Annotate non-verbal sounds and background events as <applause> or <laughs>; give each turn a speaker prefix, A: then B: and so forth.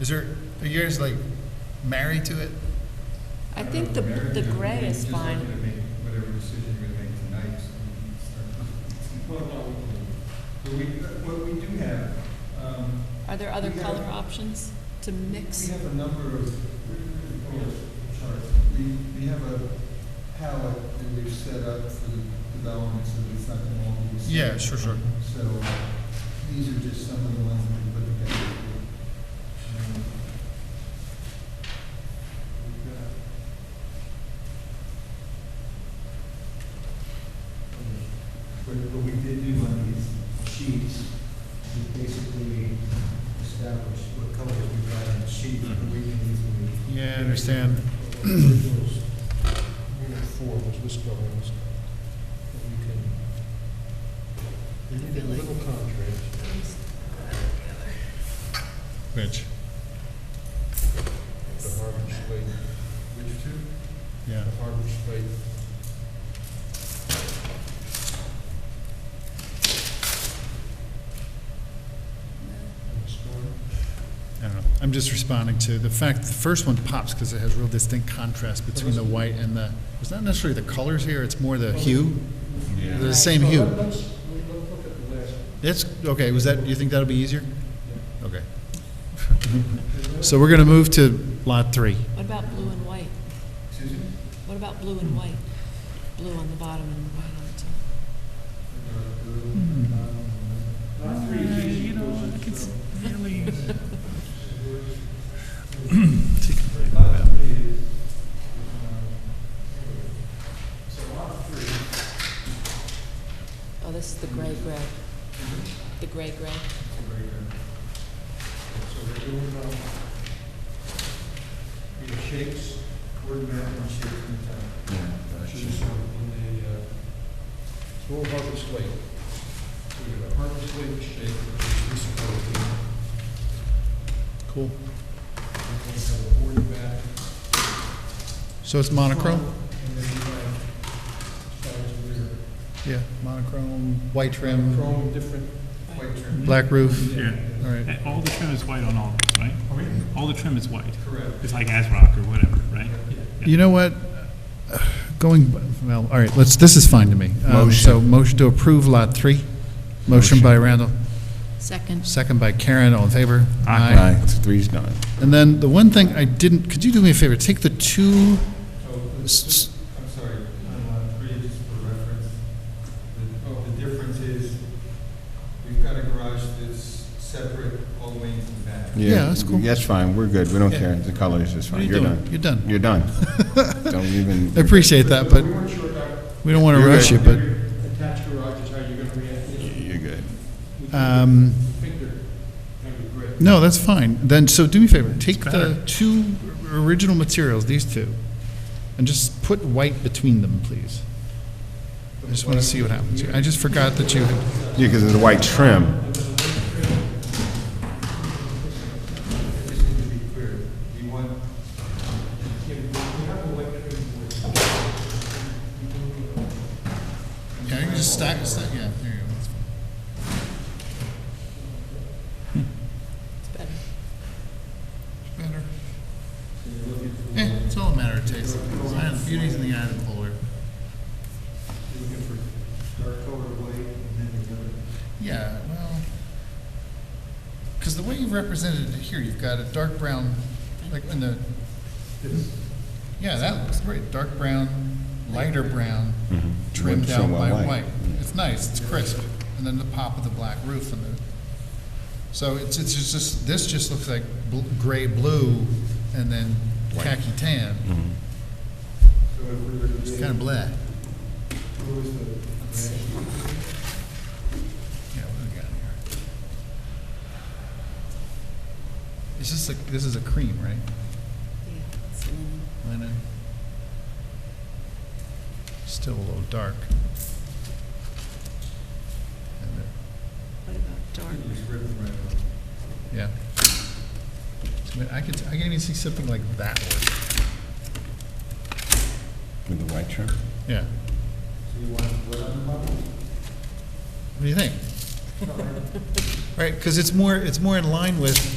A: Is there, are you guys like married to it?
B: I think the, the gray is fine.
C: Just looking to make whatever decision you're gonna make tonight, so we can start. Well, no, we can- but we, what we do have, um,
B: Are there other
C: We have-
B: color options to
C: we
B: mix?
C: have a number of, oh, charts. We, we have a palette that we've set up for the development, so it's not gonna all be the same.
A: Yeah, sure, sure.
C: So these are just some of the ones that we put together. Um, we've got- But what we did do on these sheets is basically establish what colors we've got on the sheet, and we can easily.
A: Yeah, I understand.
C: Originals, Unit four, which was colors, that we can,
B: I feel like-
C: little contrast.
A: Which,
C: The Harvard Slate. Which two?
A: yeah.
C: The Harvard Slate. And the storm.
A: I don't know. I'm just responding to the fact, the first one pops because it has real distinct contrast between the white and the, it's not necessarily the colors here, it's more the hue. They're the same
C: Well,
A: hue.
C: let- Let's, we- let's look at the last one.
A: That's, okay, was that, you think that'll be easier? Okay. <laughs> So we're going to move to lot three.
B: What about blue and white?
C: Excuse me?
B: What about blue and white? Blue on the bottom and white on the top.
C: Lot three is easy. You know, I can really. Lot three is, um, so lot three.
B: Oh, this is the gray gray. The gray gray.
C: So we're doing, um, the shapes, word map and shapes in the town. Should be in the, uh, it's all about the slate. So we got a harvest slate shape, which is supported.
A: Cool.
C: We're going to have a board map.
A: So it's monochrome?
C: And then we have shadows where.
A: Yeah, monochrome, white trim,
C: Chrome, different white trim.
A: black roof.
D: Yeah.
A: All right.
D: And All the trim is white on all, of them, right? All the trim is white.
C: Correct.
D: It's like ASRock or whatever, right? Yeah.
A: You know what? Going, well, all right, let's, this is fine to me. Um, So motion to approve lot three. Motion by Randall,
B: Second.
A: second by Karen, all in favor?
E: Aye, It's three's done.
A: And then the one thing I didn't, could you do me a favor, take the two,
C: So the-
A: s- s-
C: I'm sorry, on lot three, just for reference, the, oh, the difference is, we've got a garage that's separate all the way into the back.
A: Yeah, that's cool.
E: That's fine, we're good, we don't
A: Yeah.
E: care, the colors is
A: what are
E: fine,
A: you
E: you're
A: doing?
E: done.
A: You're done.
E: You're done.
A: <laughs>
E: Don't even.
A: I appreciate that, but
C: We weren't sure about
A: we don't want to
E: You're
A: rush you,
E: good.
A: but,
C: attached garages, how you're gonna react,
E: You're good.
C: we
A: um,
C: think they're gonna be great.
A: no, that's fine. Then, so do me a favor, take the
D: better.
A: two original materials, these two, and just put white between them, please. I just want to see what happens. here. I just forgot that you, had-
E: Yeah, because of the white trim.
C: Just need to be clear, we want, yeah, we have electric.
A: yeah, you can just stack, stack, yeah, there you go. That's fine.
B: It's better.
A: Better. Eh, it's all a matter of taste. I don't- Beauty's in the eye of the beholder.
C: Looking for dark colored white and then the other.
A: Yeah, well, because the way you've represented it here, you've got a dark brown, like in the, yeah, that looks great, dark brown, lighter brown, trimmed
E: Trim
A: out
E: on
A: by
E: Mm-hmm. white.
A: white. It's nice, it's crisp, and then the pop of the black roof and the, so it's, it's just- just, this just looks like bl- gray, blue, and then
E: White. Mm-hmm.
A: khaki tan.
C: So if we were to
A: It's
C: do-
A: kind of blah.
C: Who is the?
A: Yeah, what do we got here? Is this a, this is a cream, right?
B: Yeah. it's linen.
A: linen. Still a little dark. And it-
B: What about dark?
A: Yeah. I mean, I could, I can even see something like that work.
E: With the white trim?
A: Yeah.
C: So you want what on the bottom?
A: What do you think? Right, because it's more, it's more in line with